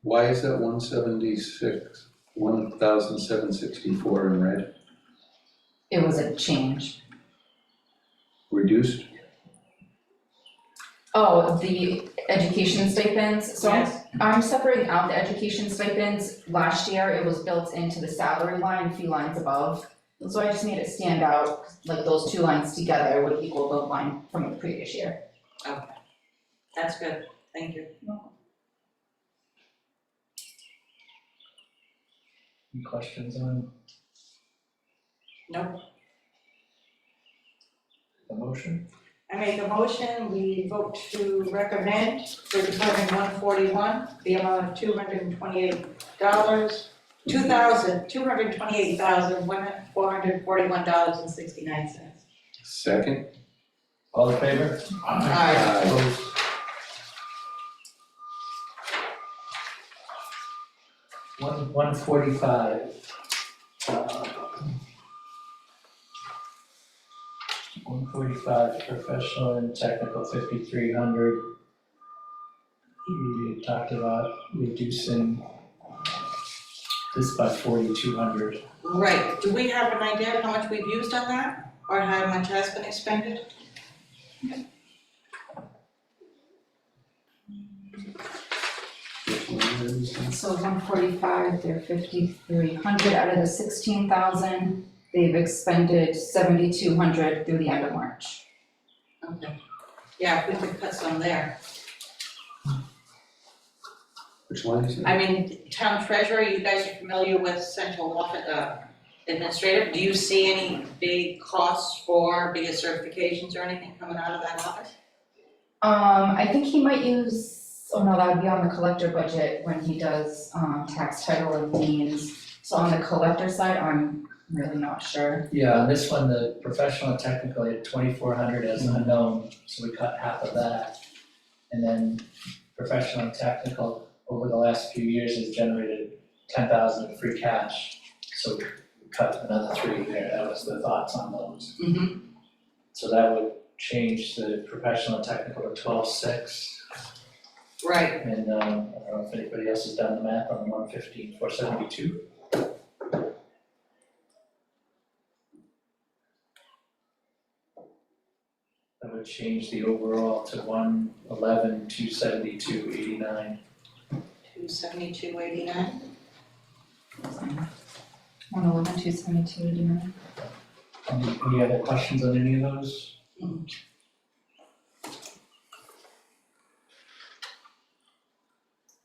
Why is that one seventy-six, one thousand seven sixty-four in red, It was a change. reduced? Oh, the education stipends, so I'm, I'm separating out the education stipends. Last year, it was built into the salary line, a few lines above. So I just made it stand out, like those two lines together would equal the line from the previous year. That's good, thank you. Any questions on? No. The motion? I make a motion, we vote to recommend for Department one forty-one, the amount of two hundred and twenty-eight dollars, two thousand, two hundred and twenty-eight thousand, one, four hundred and forty-one dollars and sixty-nine cents. Second? All in favor? Aye. Opposed? One, one forty-five. One forty-five, professional and technical, fifty-three hundred. We talked about reducing this by forty-two hundred. Right, do we have an idea of how much we've used on that, or how much has been expended? Which one is it? So one forty-five, they're fifty-three hundred out of the sixteen thousand. They've expended seventy-two hundred through the end of March. Okay. Yeah, if we could cut some there, Which line is it? I mean, town treasurer, you guys are familiar with central office, uh, administrative, do you see any big costs for, big certifications or anything coming out of that office? Um, I think he might use, oh no, that would be on the collector budget when he does, um, tax title and liens. So on the collector side, I'm really not sure. Yeah, on this one, the professional and technical, had twenty-four hundred as unknown, so we cut half of that. And then professional and technical, over the last few years, has generated ten thousand in free cash. So we cut another three there, that was the thoughts on those. Mm-hmm. So that would change the professional and technical to twelve-six. Right, And um, I don't know if anybody else has done the math on one fifteen, four seventy-two. That would change the overall to one eleven, two seventy-two, eighty-nine. two seventy-two eighty-nine, One eleven, two seventy-two, do you know? Any any other questions on any of those?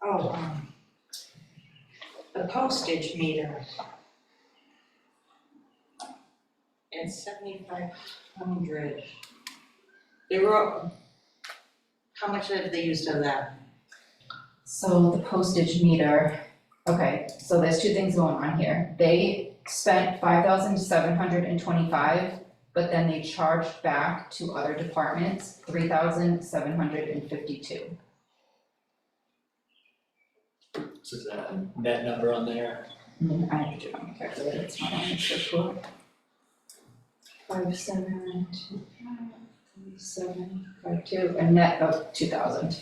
oh, um. The postage meter. It's seventy-five hundred. They um, were, how much have they used of that? So the postage meter, okay, so there's two things going on here. They spent five thousand seven hundred and twenty-five, but then they charged back to other departments, three thousand seven hundred and fifty-two. So is that a net number on there? I have to do it on my calculator, it's not on the script. Five, seven, two, five, seven, five, two, a net of two thousand.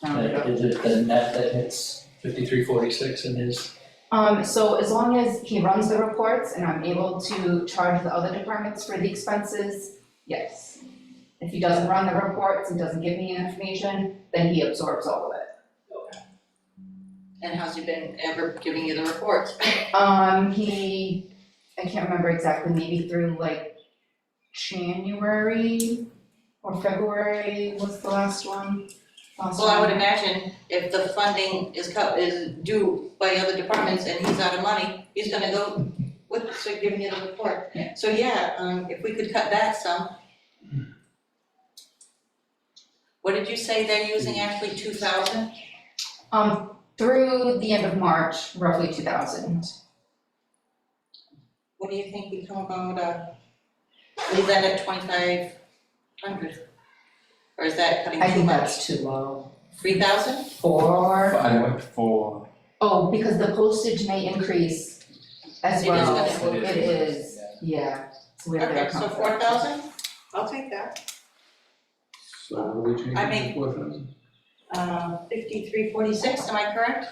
Rounded up. Uh, Is it the net that hits fifty-three, forty-six in his? Um, so as long as he runs the reports and I'm able to charge the other departments for the expenses, yes. If he doesn't run the reports and doesn't give me information, then he absorbs all of it. And how's he been ever giving you the reports? Um, he, I can't remember exactly, maybe through like January or February was the last one. Last Well, I would one. imagine if the funding is cut, is due by other departments and he's out of money, he's gonna go with, so giving you the report. Yeah. So yeah, um, if we could cut that some. What did you say they're using actually, two thousand? Um, through the end of March, roughly two thousand. What do you think we come about, uh, leave that at twenty-five hundred? Or is that cutting I too think much? that's too low. Three thousand? Four. Five, four. Oh, because the postage may increase as It is well. gonna It is, yeah, so we have to Okay, account so for four that. thousand? I'll take that. So what are we changing I mean- to four thousand? uh, fifty-three Um, forty-six, am I correct?